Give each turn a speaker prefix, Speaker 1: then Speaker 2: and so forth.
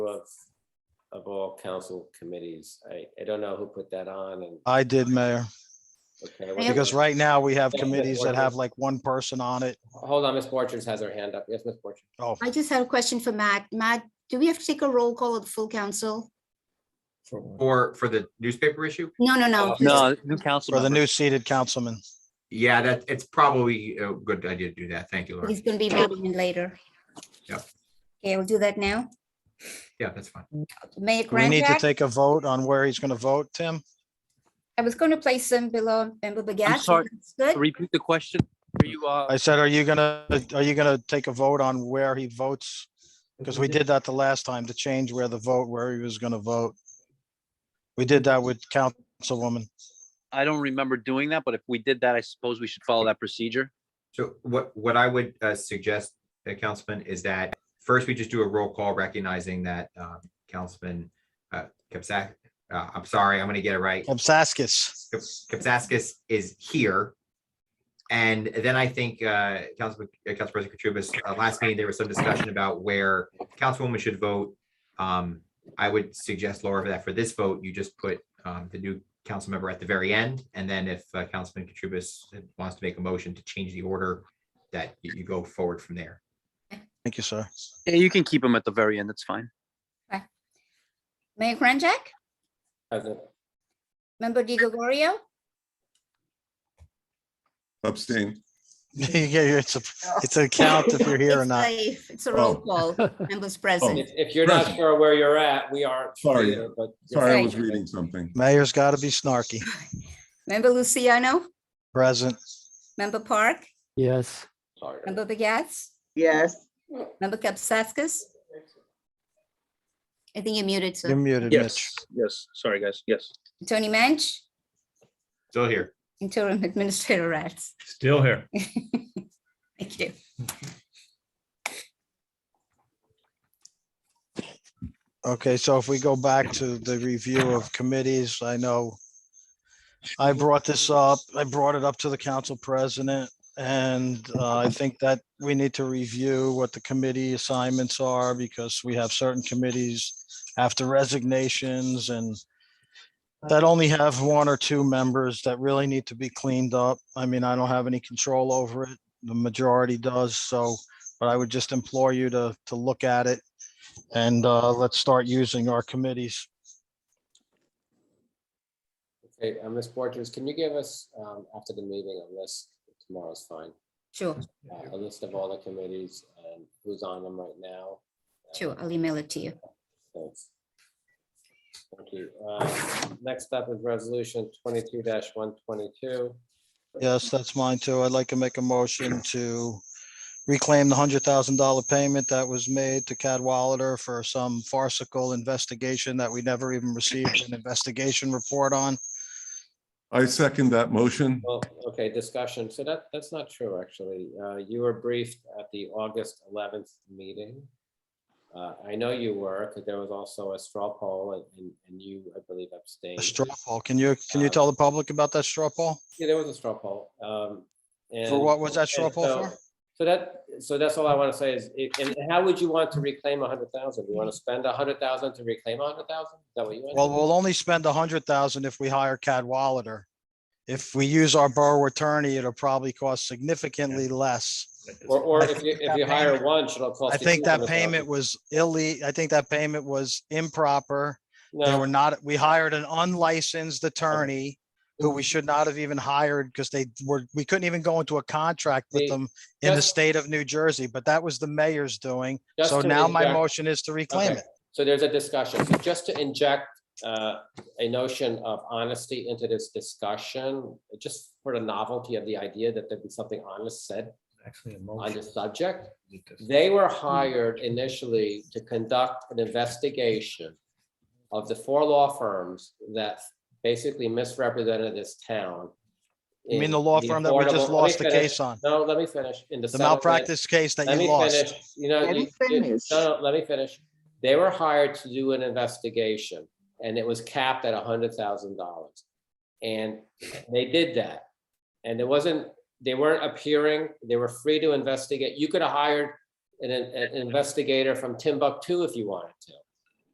Speaker 1: of, of all council committees. I, I don't know who put that on and.
Speaker 2: I did, Mayor,
Speaker 1: okay, what-
Speaker 2: because right now we have
Speaker 1: Yeah, but
Speaker 2: committees
Speaker 1: what
Speaker 2: that have
Speaker 1: is-
Speaker 2: like one person on it.
Speaker 1: Hold on, Ms. Borchers has her hand up. Yes, Ms. Borchers.
Speaker 2: Oh,
Speaker 3: I just had a question for Matt. Matt, do we have to take a roll call of the full council?
Speaker 4: For, for the newspaper issue?
Speaker 3: No, no,
Speaker 2: Uh,
Speaker 3: no.
Speaker 5: No, new council
Speaker 2: for the
Speaker 5: member.
Speaker 2: new seated councilman.
Speaker 4: Yeah, that, it's probably a good idea to do that. Thank you, Laura.
Speaker 3: He's gonna be voting in later.
Speaker 4: Yep.
Speaker 3: Okay, we'll do that now.
Speaker 4: Yeah, that's fine.
Speaker 3: Mayor
Speaker 2: Do We need to
Speaker 3: Grandjack,
Speaker 2: take a vote on where he's going to vote, Tim.
Speaker 3: I was gonna place them below member Begat. so
Speaker 5: sorry,
Speaker 3: that's Good.
Speaker 5: Repeat the question. Are you, uh,
Speaker 2: I said, are you gonna, are you gonna take a vote on where he votes? Because we did that the last time to change where the vote, where he was gonna vote. We did that with Councilwoman.
Speaker 5: I don't remember doing that, but if we did that, I suppose we should follow that procedure.
Speaker 4: So what, what I would uh, suggest, uh, Councilman, is that first we just do a roll call recognizing that um, Councilman uh, Kapsak, uh, I'm sorry, I'm going to get it right.
Speaker 2: Obsaskis.
Speaker 4: Kap- Kapsakis is here. And then I think uh, Councilman, uh, Council President Katrubis, uh, last meeting, there was some discussion about where Councilwoman should vote. Um, I would suggest Laura that for this vote, you just put um, the new council member at the very end. And then if uh, Councilman Katrubis wants to make a motion to change the order, that you you go forward from there.
Speaker 2: Thank you, sir.
Speaker 5: Yeah, You can keep them at the very end. That's fine.
Speaker 3: Mayor Grandjack,
Speaker 1: Hasn't-
Speaker 3: member Di Gregorio,
Speaker 6: Abstain.
Speaker 2: Yeah, It's a, it's a count if you're here or
Speaker 3: It's
Speaker 2: not.
Speaker 3: a- It's a roll
Speaker 6: Oh.
Speaker 3: call, members
Speaker 1: If,
Speaker 3: present.
Speaker 1: if you're not
Speaker 6: Present.
Speaker 1: sure where you're at, we are.
Speaker 6: Sorry.
Speaker 1: here, but-
Speaker 6: Sorry, I was reading something.
Speaker 2: Mayor's got to be snarky.
Speaker 3: Member Luciano,
Speaker 2: Present.
Speaker 3: member Park,
Speaker 7: Yes.
Speaker 1: Sorry.
Speaker 3: member Begat,
Speaker 8: Yes,
Speaker 3: member Kapsakis. I think you're muted,
Speaker 2: You're
Speaker 3: sir.
Speaker 2: muted, Mitch.
Speaker 5: yes. Sorry, guys. Yes.
Speaker 3: Tony Manch,
Speaker 4: Still here.
Speaker 3: interim administrator Rats.
Speaker 9: Still here.
Speaker 3: Thank you.
Speaker 2: Okay, so if we go back to the review of committees, I know I brought this up, I brought it up to the council president, and uh, I think that we need to review what the committee assignments are, because we have certain committees after resignations and that only have one or two members that really need to be cleaned up. I mean, I don't have any control over it, the majority does, so, but I would just implore you to, to look at it and uh, let's start using our committees.
Speaker 1: Okay, uh, Ms. Borchers, can you give us, um, after the meeting, a list, tomorrow's fine,
Speaker 3: Sure,
Speaker 1: uh, a list of all the committees and who's on them right now? Uh,
Speaker 3: sure. I'll email it to you.
Speaker 1: Thanks. Thank you. Uh, Next up is resolution twenty-two one twenty-two.
Speaker 2: Yes, that's mine too. I'd like to make a motion to reclaim the hundred thousand dollar payment that was made to Cadwalader for some farcical investigation that we never even received an investigation report on.
Speaker 6: I second that motion.
Speaker 1: Well, okay, discussion. So that, that's not true, actually. Uh, You were briefed at the August eleventh meeting. Uh, I know you were, because there was also a straw poll and- and, and you, I believe, abstained.
Speaker 2: A straw poll. Can you, can you tell the public about that straw poll?
Speaker 1: Yeah, there was a straw poll. um, and-
Speaker 2: what was that straw
Speaker 1: and
Speaker 2: poll
Speaker 1: so-
Speaker 2: for?
Speaker 1: So that, so that's all I want to say is, it- and how would you want to reclaim a hundred thousand? You want to spend a hundred thousand to reclaim a hundred thousand? Is that what you want?
Speaker 2: Well, we'll only spend a hundred thousand if we hire Cadwalader. If we use our borough attorney, it'll probably cost significantly less.
Speaker 1: Or, or
Speaker 2: I
Speaker 1: if you,
Speaker 2: think
Speaker 1: if
Speaker 2: that
Speaker 1: you hire
Speaker 2: payment-
Speaker 1: one, it'll cost.
Speaker 2: I
Speaker 1: you
Speaker 2: think that
Speaker 1: 200,000.
Speaker 2: payment was ille, I think that payment was improper. They
Speaker 1: No,
Speaker 2: were not, we hired an unlicensed attorney who we should not have even hired because they were, we couldn't even go into a contract
Speaker 1: The-
Speaker 2: with them in the
Speaker 1: just-
Speaker 2: state of New Jersey, but that was the mayor's doing.
Speaker 1: just
Speaker 2: So
Speaker 1: to
Speaker 2: now my
Speaker 1: interject-
Speaker 2: motion is to reclaim
Speaker 1: Okay.
Speaker 2: it.
Speaker 1: So there's a discussion. So just to inject uh, a notion of honesty into this discussion, just for the novelty of the idea that there'd be something honest said
Speaker 9: Actually, a
Speaker 1: on
Speaker 9: motion.
Speaker 1: this subject. They were hired initially to conduct an investigation of the four law firms that basically misrepresented this town.
Speaker 2: You mean
Speaker 1: in
Speaker 2: the law firm that we
Speaker 1: affordable- let
Speaker 2: just
Speaker 1: me
Speaker 2: lost the
Speaker 1: finish.
Speaker 2: case on,
Speaker 1: No, let me finish. In the
Speaker 2: the
Speaker 1: settlement-
Speaker 2: malpractice case that
Speaker 1: let
Speaker 2: you
Speaker 1: me
Speaker 2: lost.
Speaker 1: finish. You know,
Speaker 8: Let
Speaker 1: you-
Speaker 8: him
Speaker 1: you-
Speaker 8: finish.
Speaker 1: no, no, let me finish. They were hired to do an investigation and it was capped at a hundred thousand dollars. And they did that. And it wasn't, they weren't appearing, they were free to investigate. You could have hired an, an an investigator from Timbuktu if you wanted to.